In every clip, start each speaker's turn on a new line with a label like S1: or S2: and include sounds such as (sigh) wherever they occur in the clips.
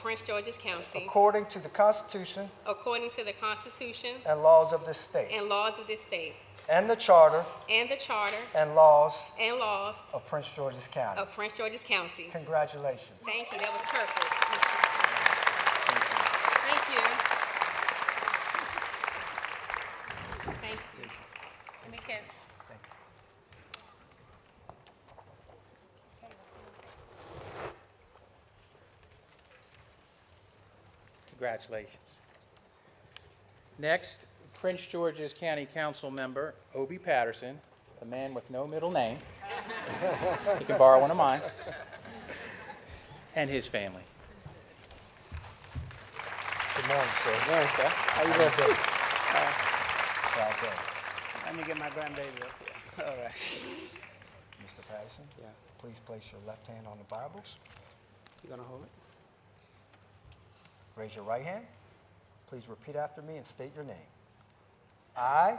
S1: Prince George's County
S2: according to the Constitution
S1: according to the Constitution
S2: and laws of this state,
S1: and laws of this state
S2: and the Charter
S1: and the Charter
S2: and laws
S1: and laws
S2: of Prince George's County.
S1: of Prince George's County.
S2: Congratulations.
S1: Thank you, that was perfect. Thank you. Thank you. Let me kiss.
S3: Congratulations. Next, Prince George's County Council Member Obie Patterson, the man with no middle name. He can borrow one of mine. And his family.
S2: Good morning, sir.
S3: How you
S2: Proud day.
S4: Let me get my grandbaby up here. (laughs) All right.
S2: Mr. Patterson,
S4: Yeah.
S2: please place your left hand on the Bible.
S4: You gonna hold it?
S2: Raise your right hand. Please repeat after me and state your name. I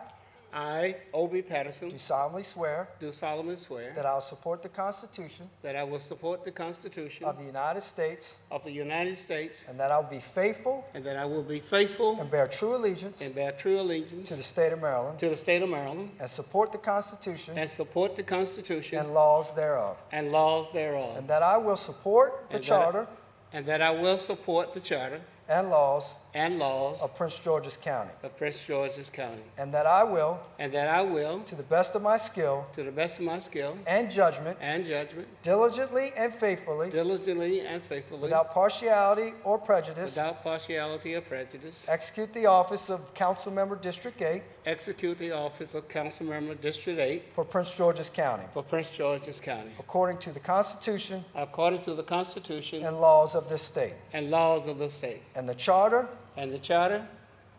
S4: I, Obie Patterson,
S2: do solemnly swear
S4: do solemnly swear
S2: that I will support the Constitution
S4: that I will support the Constitution
S2: of the United States
S4: of the United States
S2: and that I will be faithful
S4: and that I will be faithful
S2: and bear true allegiance
S4: and bear true allegiance
S2: to the state of Maryland
S4: to the state of Maryland
S2: and support the Constitution
S4: and support the Constitution
S2: and laws thereof.
S4: and laws thereof.
S2: And that I will support the
S4: And that I-
S2: Charter
S4: And that I will support the charter
S2: and laws
S4: and laws
S2: of Prince George's County.
S4: of Prince George's County.
S2: And that I will,
S4: And that I will,
S2: to the best of my skill
S4: to the best of my skill
S2: and judgment,
S4: and judgment,
S2: diligently and faithfully,
S4: diligently and faithfully,
S2: without partiality or prejudice,
S4: without partiality or prejudice,
S2: execute the office of Council Member District 8
S4: Execute the office of council member District 8
S2: for Prince George's County,
S4: for Prince George's County,
S2: according to the Constitution
S4: according to the Constitution
S2: and laws of this state,
S4: and laws of the state,
S2: and the Charter
S4: and the charter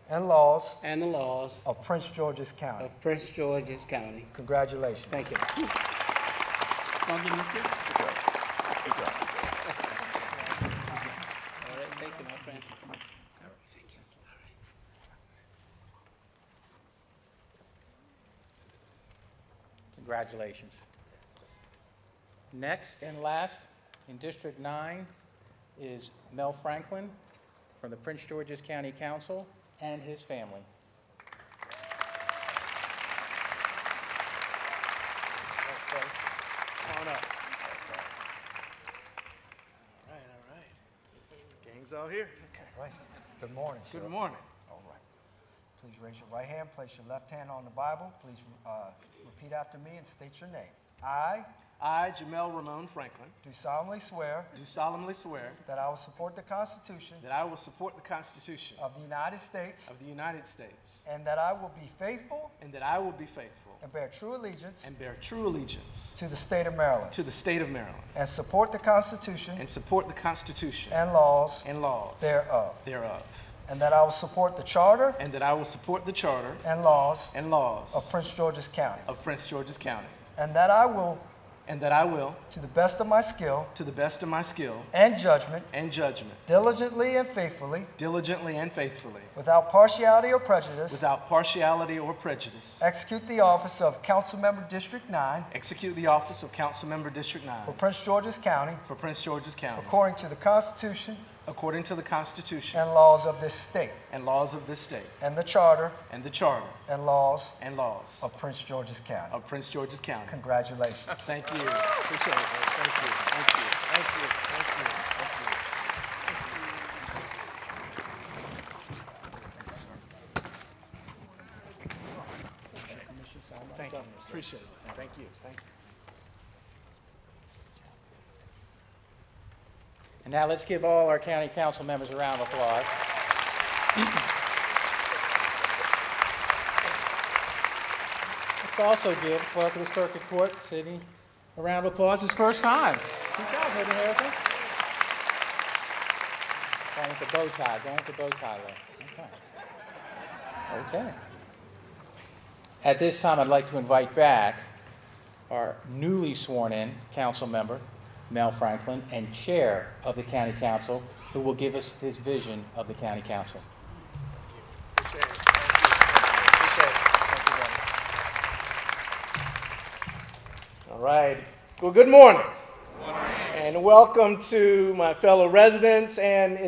S2: and laws
S4: and the laws
S2: of Prince George's County.
S4: of Prince George's County.
S2: Congratulations.
S4: Thank you. All right, thank you, my friend. Thank you. All right.
S3: Congratulations. Next and last, in District 9, is Mel Franklin from the Prince George's County Council and his family.
S5: Come on up. All right, all right. Gang's all here. Okay.
S2: Right. Good morning, sir.
S5: Good morning.
S2: All right. Please raise your right hand, place your left hand on the Bible. Please uh, repeat after me and state your name. I
S5: I, Jamel Ramon Franklin,
S2: do solemnly swear
S5: do solemnly swear
S2: that I will support the Constitution
S5: that I will support the Constitution
S2: of the United States
S5: of the United States
S2: and that I will be faithful
S5: and that I will be faithful
S2: and bear true allegiance
S5: and bear true allegiance
S2: to the state of Maryland
S5: to the state of Maryland
S2: and support the Constitution
S5: and support the Constitution
S2: and laws
S5: and laws
S2: thereof,
S5: thereof,
S2: and that I will support the Charter
S5: and that I will support the charter
S2: and laws
S5: and laws
S2: of Prince George's County,
S5: of Prince George's County,
S2: and that I will,
S5: and that I will,
S2: to the best of my skill
S5: to the best of my skill
S2: and judgment,
S5: and judgment,
S2: diligently and faithfully,
S5: diligently and faithfully,
S2: without partiality or prejudice,
S5: Without partiality or prejudice.
S2: execute the office of Councilmember District 9
S5: Execute the office of Councilmember District 9
S2: for Prince George's County
S5: for Prince George's County
S2: according to the Constitution
S5: according to the Constitution
S2: and laws of this state,
S5: and laws of this state
S2: and the Charter
S5: and the Charter
S2: and laws
S5: and laws
S2: of Prince George's County.
S5: of Prince George's County.
S2: Congratulations.
S5: Thank you. Appreciate it. Thank you. Thank you. Thank you. Thank you. Thank you. Thank you. Appreciate it. Thank you. Thank you.
S3: And now let's give all our county council members a round of applause. Let's also give clerk of the circuit court, Sidney, a round of applause, his first time. Good job, Hayden Harrison. Going with the bow tie, going with the bow tie there. Okay. Okay. At this time, I'd like to invite back our newly sworn-in council member, Mel Franklin, and Chair of the County Council, who will give us his vision of the County Council.
S5: All right. Well, good morning. And welcome to my fellow residents and